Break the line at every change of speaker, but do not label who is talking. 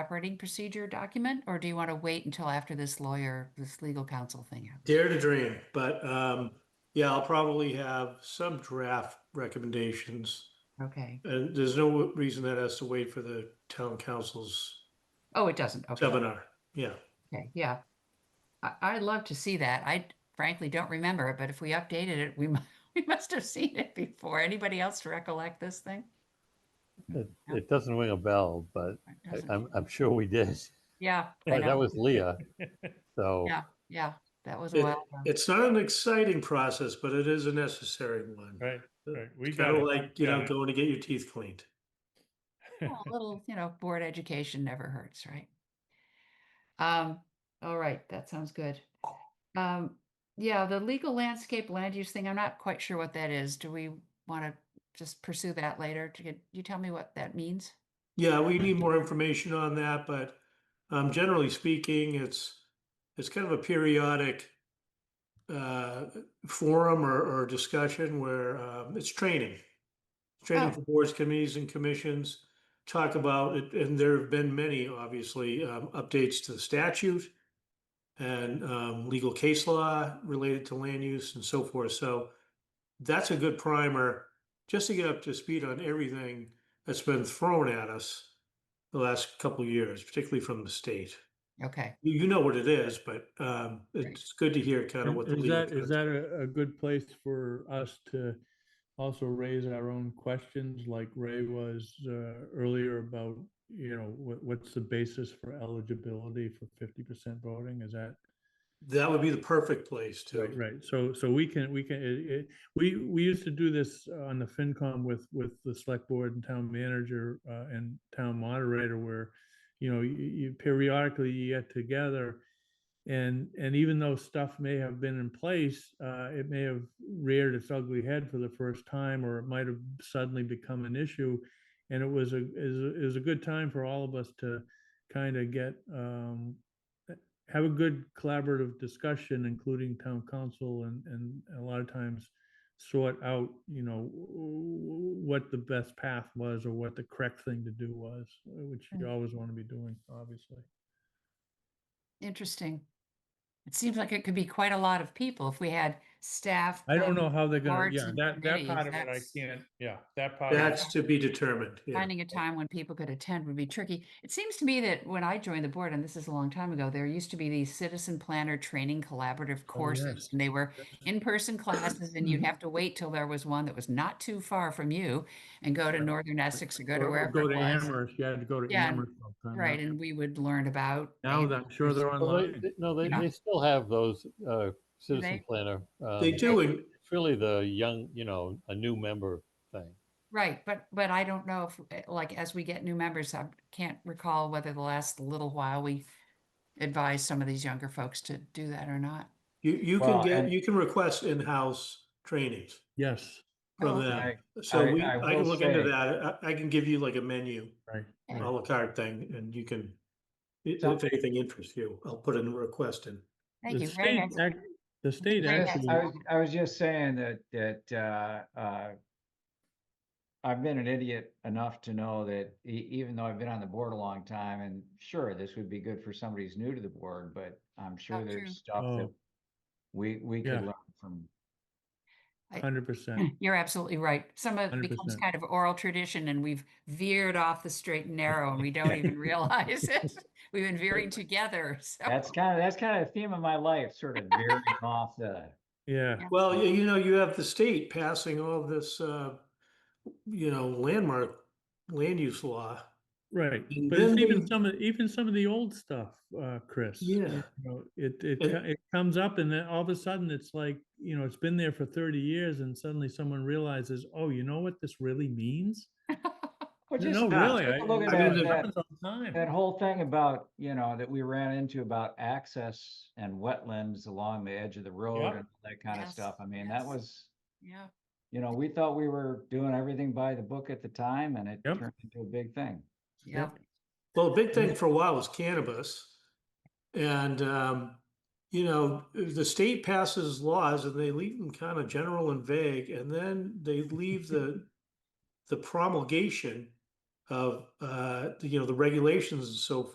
operating procedure document, or do you want to wait until after this lawyer, this legal counsel thing? happens?
Dare to dream, but um, yeah, I'll probably have some draft recommendations.
Okay.
And there's no reason that has to wait for the town council's
Oh, it doesn't. Okay.
seminar. Yeah,
Okay, yeah. I, I'd love to see that. I frankly don't remember it, but if we updated it, we, mu- we must have seen it before. Anybody else recollect this thing?
It,
Yeah.
it doesn't ring a bell, but
It
I-
doesn't.
I'm, I'm sure we did.
Yeah, I
But That
know.
was Leah. So,
Yeah. yeah, that was a
It-
while. ago.
it's not an exciting process, but it is a necessary one.
Right, right. We
It's
got
kind
it.
of like, you
Got
know,
it.
going to get your teeth cleaned.
Well, A little, you know, board education never hurts, right? Um, all right, that sounds good. Um, yeah, the legal landscape land use thing, I'm not quite sure what that is. Do we want to just pursue that later? To get, you tell me what that means?
Yeah, we need more information on that, but um, generally speaking, it's, it's kind of a periodic uh, forum or, or discussion where um, it's training. Training
Oh.
for boards, committees and commissions, talk about it, and there have been many, obviously, um, updates to the statute and um, legal case law related to land use and so forth. So that's a good primer just to get up to speed on everything that's been thrown at us the last couple of years, particularly from the state.
Okay,
You, you know what it is, but um,
Right.
it's good to hear kind of
And
what the
Is
legal
that, is
concept-
that a, a good place for us to also raise our own questions like Ray was, uh, earlier about, you know, what, what's the basis for eligibility for fifty percent voting? Is that?
that would be the perfect place to.
Right, right. So, so we can, we can, it, it, we, we used to do this uh, on the FinCom with, with the select board and town manager, uh, and town moderator where, you know, you, you periodically you get together and, and even though stuff may have been in place, uh, it may have reared its ugly head for the first time, or it might have suddenly become an issue. And it was a, is, a- is a good time for all of us to kind of get, um, have a good collaborative discussion, including town council and, and a lot of times sort out, you know, w- w- what the best path was or what the correct thing to do was, uh, which you
Hmm.
always want to be doing, obviously.
interesting. It seems like it could be quite a lot of people if we had staff.
I don't
and
know how they're gonna,
boards
yeah,
and
that, that
committees,
part of it, I
that's-
can't, yeah, that part. I-
That's to be determined. yeah.
Finding a time when people could attend would be tricky. It seems to me that when I joined the board, and this is a long time ago, there used to be these citizen planner training collaborative courses.
yes.
And they were in-person classes and you'd have to wait till there was one that was not too far from you and go to
Right.
northern Essex or go to
Or- or
wherever
Go
it
to
was.
Amherst, you had to go to
Yeah,
Amherst. sometime, yeah.
Right, and we would learn about.
Now
land
that, I'm sure they're
use.
Well, they-
online.
they- no, they,
Yeah.
they still have those uh,
they?
citizen planner.
They
um,
do, and
It's really the young, you know, a new member thing.
Right, but, but I don't know if, uh, like, as we get new members, I can't recall whether the last little while we advised some of these younger folks to do that or not.
you, you can
Well,
get,
and-
you can request in-house trainings
Yes,
from
Oh,
them. So
I-
we,
I
I can
will
look into
say-
that. I, I can give you like a menu,
right.
a
Yeah.
right.
la carte thing, and you can, i- if
Something-
anything interests you, I'll put in a request in.
Thank
The
you. Very
state
nice.
act- The state
Very
Yes,
nice.
actually.
I was, I was just saying that, that, uh, uh, I've been an idiot enough to know that e- even though I've been on the board a long time and sure, this would be good for somebody who's new to the board, but I'm
Oh,
sure
true.
there's stuff
Oh.
that we, we
Yeah.
could learn from.
Hundred percent.
You're absolutely right. Some of it becomes
100%.
kind of oral tradition and we've veered off the straight and narrow and we don't even realize it. We've been veering together. So
That's kind of, that's kind of a theme of my life, sort of veering off the,
Yeah.
Well, y- you know, you have the state passing all this, uh, you know, landmark land use law.
Right,
And
but it's
then
even
they-
some of, even some of the old stuff, uh, Chris. you
Yeah.
know, It, it,
And-
co- it comes up and then all of a sudden it's like, you know, it's been there for thirty years and suddenly someone realizes, oh, you know what this really means?
well,
You
just
know,
stop,
really,
take
I-
a look
I
mean,
at that-
there's-
It
that-
happens all the time.
That whole thing about, you know, that we ran into about access and wetlands along the edge of the road
Yep.
and all that kind of
Yes,
stuff. I mean, that
yes.
was,
Yeah,
you know, we thought we were doing everything by the book at the time and it
Yep.
turned into a big thing.
yeah.
Well, a big thing for a while was cannabis. And, um, you know, the state passes laws and they leave them kind of general and vague, and then they leave the, the promulgation of, uh, you know, the regulations and so